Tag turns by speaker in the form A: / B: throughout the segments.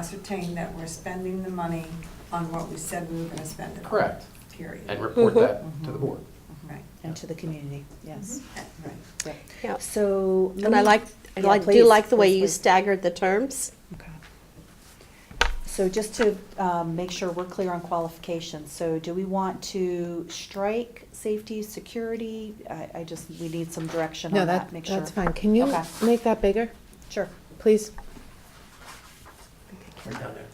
A: ascertain that we're spending the money on what we said we were gonna spend it on.
B: Correct.
A: Period.
B: and report that
C: Mm-hmm.
B: to the board.
A: Right,
C: and to the community, yes.
A: right.
D: Mm-hmm. Yeah.
C: So.
D: And I like, I
C: Yeah,
D: like, do
C: please,
D: like the way
C: please,
D: you
C: please.
D: staggered the terms.
C: Okay. So just to um, make sure we're clear on qualifications, so do we want to strike safety, security? I, I just, we need some direction
E: No,
C: on that,
E: that,
C: make sure.
E: that's fine. Can you
C: Okay.
E: make that bigger,
C: Sure.
E: please?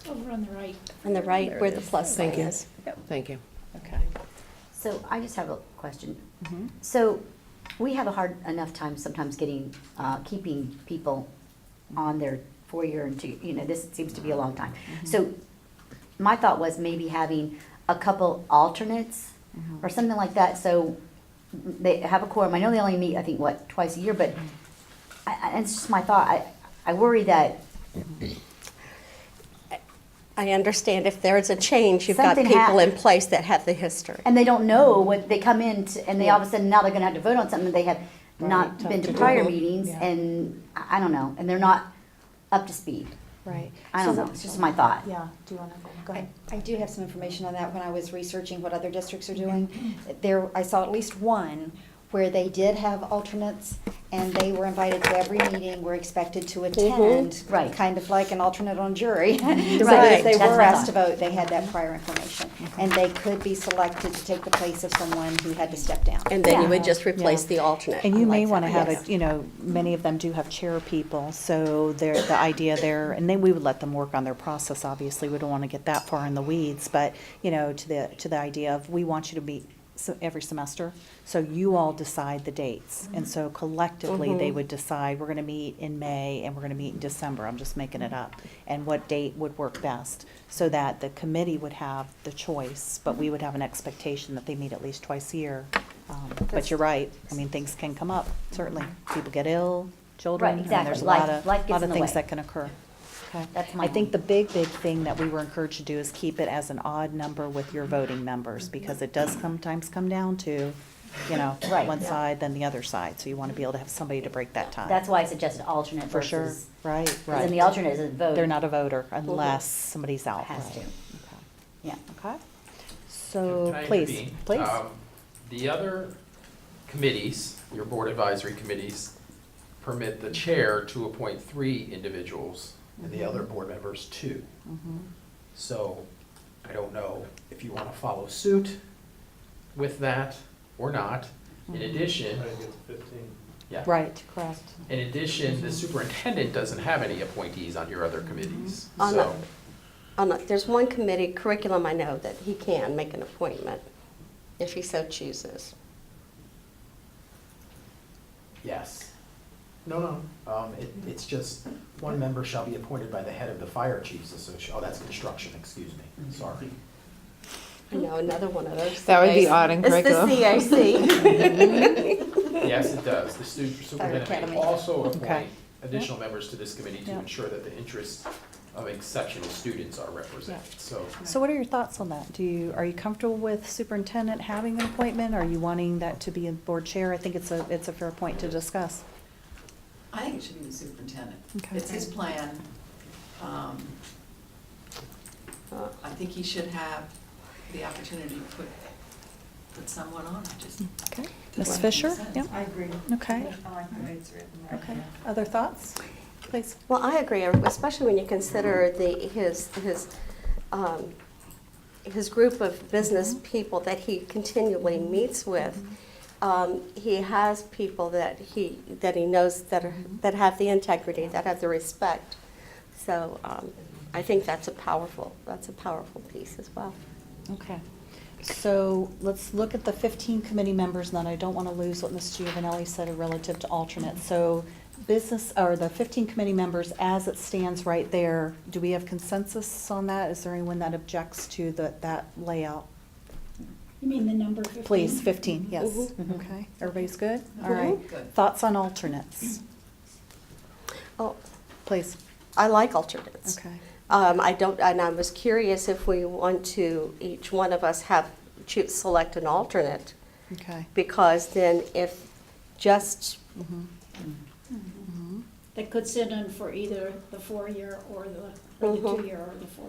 F: Over on the right.
D: On the right,
E: There
D: where
E: it
D: the
E: is.
D: plus sign
E: Thank you.
D: is.
E: Thank you.
C: Okay.
G: So I just have a question.
D: Mm-hmm.
C: Mhm.
G: So we have a hard enough time sometimes getting, uh, keeping people on their four-year and two, you know, this seems to be a long time. So my thought was maybe having a couple alternates
D: Mm-hmm.
G: or something like that, so they have a quorum. I know they only meet, I think, what, twice a year, but I, I, it's just my thought. I, I worry that
D: I understand if there's a change, you've got
G: Something
D: people in
G: happened.
D: place that have the history.
G: and they don't know what they come in t and they all of a sudden now they're going to have to vote on something they have
C: Right,
G: not
C: tough
G: been to
C: to do.
G: prior meetings
C: Yeah.
G: and I I don't know and they're not up to speed.
C: Right.
G: I
C: So
G: don't
C: that-
G: know. It's just my thought.
C: Yeah, do you want to, go
H: I
C: ahead.
H: I do have some information on that when I was researching what other districts are doing. There, I saw at least one where they did have alternates and they were invited to every meeting, were expected to attend.
G: Right.
H: Kind of like an alternate on jury. So
D: Right.
H: if they
G: That's
H: were
G: my
H: asked to
G: thought.
H: vote, they had that prior information. And they could be selected to take the place of someone who had to step down.
D: And then you would
C: Yeah.
D: just replace
C: Yeah.
D: the alternate.
C: And
D: I
C: you may
D: like
C: want to
D: that.
C: have
D: Yes.
C: a, you know, many of them do have chair people, so they're, the idea there, and then we would let them work on their process, obviously, we don't want to get that far in the weeds, but, you know, to the, to the idea of, we want you to meet so, every semester, so you all decide the dates, and so collectively, they would decide, we're going to meet in May, and we're going to meet in December, I'm just making it up, and what date would work best, so that the committee would have the choice, but we would have an expectation that they meet at least twice a year, um, But you're right, I mean, things can come up, certainly. People get ill, children,
G: Right,
C: I mean,
G: exactly.
C: there's a
G: Life-
C: lot of,
G: life gets
C: lot
G: in
C: of
G: the
C: things
G: way.
C: that can occur. Okay.
G: That's my
C: I think
G: only-
C: the big, big thing that we were encouraged to do is keep it as an odd number with your voting members, because it does sometimes come down to, you know,
G: Right.
C: one side, then the other side, so you want to be able to have somebody to break that tie.
G: That's why I suggested alternate
C: For sure,
G: versus.
C: right,
G: And the
C: right.
G: alternate isn't vote.
C: They're not a voter unless somebody's out.
G: Has to.
C: Okay.
G: Yeah.
C: Okay,
B: Can
C: so,
B: I
C: please,
B: intervene?
C: please.
B: Um, The other committees, your board advisory committees, permit the chair to appoint three individuals and the other board members two.
C: Mm-hmm.
B: So I don't know if you want to follow suit with that or not. In
C: Mm-hmm.
B: addition, yeah.
C: Right, correct.
B: In addition, the superintendent doesn't have any appointees on your other committees,
D: On
B: so.
D: On the- There's one committee, curriculum, I know, that he can make an appointment if he so chooses.
B: Yes. No, no, um, it, it's just, one member shall be appointed by the head of the fire chiefs association, oh, that's construction, excuse me, sorry.
D: I know another one of those.
E: That would be
D: CAs.
E: odd in curriculum.
D: It's the CAC.
B: Yes, it does, the stu- superintendent may
H: academy.
B: also appoint
C: Okay.
B: additional members to this committee to
C: Yeah.
B: ensure that the interests of exceptional students are represented, so.
C: So what are your thoughts on that? Do you, are you comfortable with superintendent having an appointment? Are you wanting that to be a board chair? I think it's a, it's a fair point to discuss.
I: I think it should be the superintendent.
C: Okay.
I: It's his plan. Um,
D: Uh,
I: I think he should have the opportunity to put, put someone on, I just.
C: Okay. Ms.
I: Does that make
C: Fisher?
I: sense?
C: Yeah,
A: I agree.
C: Okay.
A: I like the way it's written right
C: okay.
A: now.
C: Other thoughts,
D: Uh,
C: please?
D: Well, I agree, especially when you consider the, his, his, um, his group of business people that he continually meets with. Um, he has people that he, that he knows that are, that have the integrity, that have the respect. So, um, I think that's a powerful, that's a powerful piece as well.
C: Okay. So let's look at the fifteen committee members, and then I don't want to lose what Ms. Giovanelli said relative to alternates. So business, or the fifteen committee members as it stands right there, do we have consensus on that? Is there anyone that objects to the, that layout?
F: You mean the number fifteen?
C: Please, 15, yes.
D: Mhm.
C: Okay, everybody's good? All
D: Mhm.
C: right.
I: Good.
C: Thoughts on alternates?
D: Oh,
C: Please.
D: I like alternates.
C: Okay.
D: Um, I don't, and I was curious if we want to, each one of us have, choose, select an alternate,
C: Okay. Mm-hmm,
D: because then if just
G: that could sit in for either the four-year or the, or the
J: Mhm.
G: two-year or the four-year.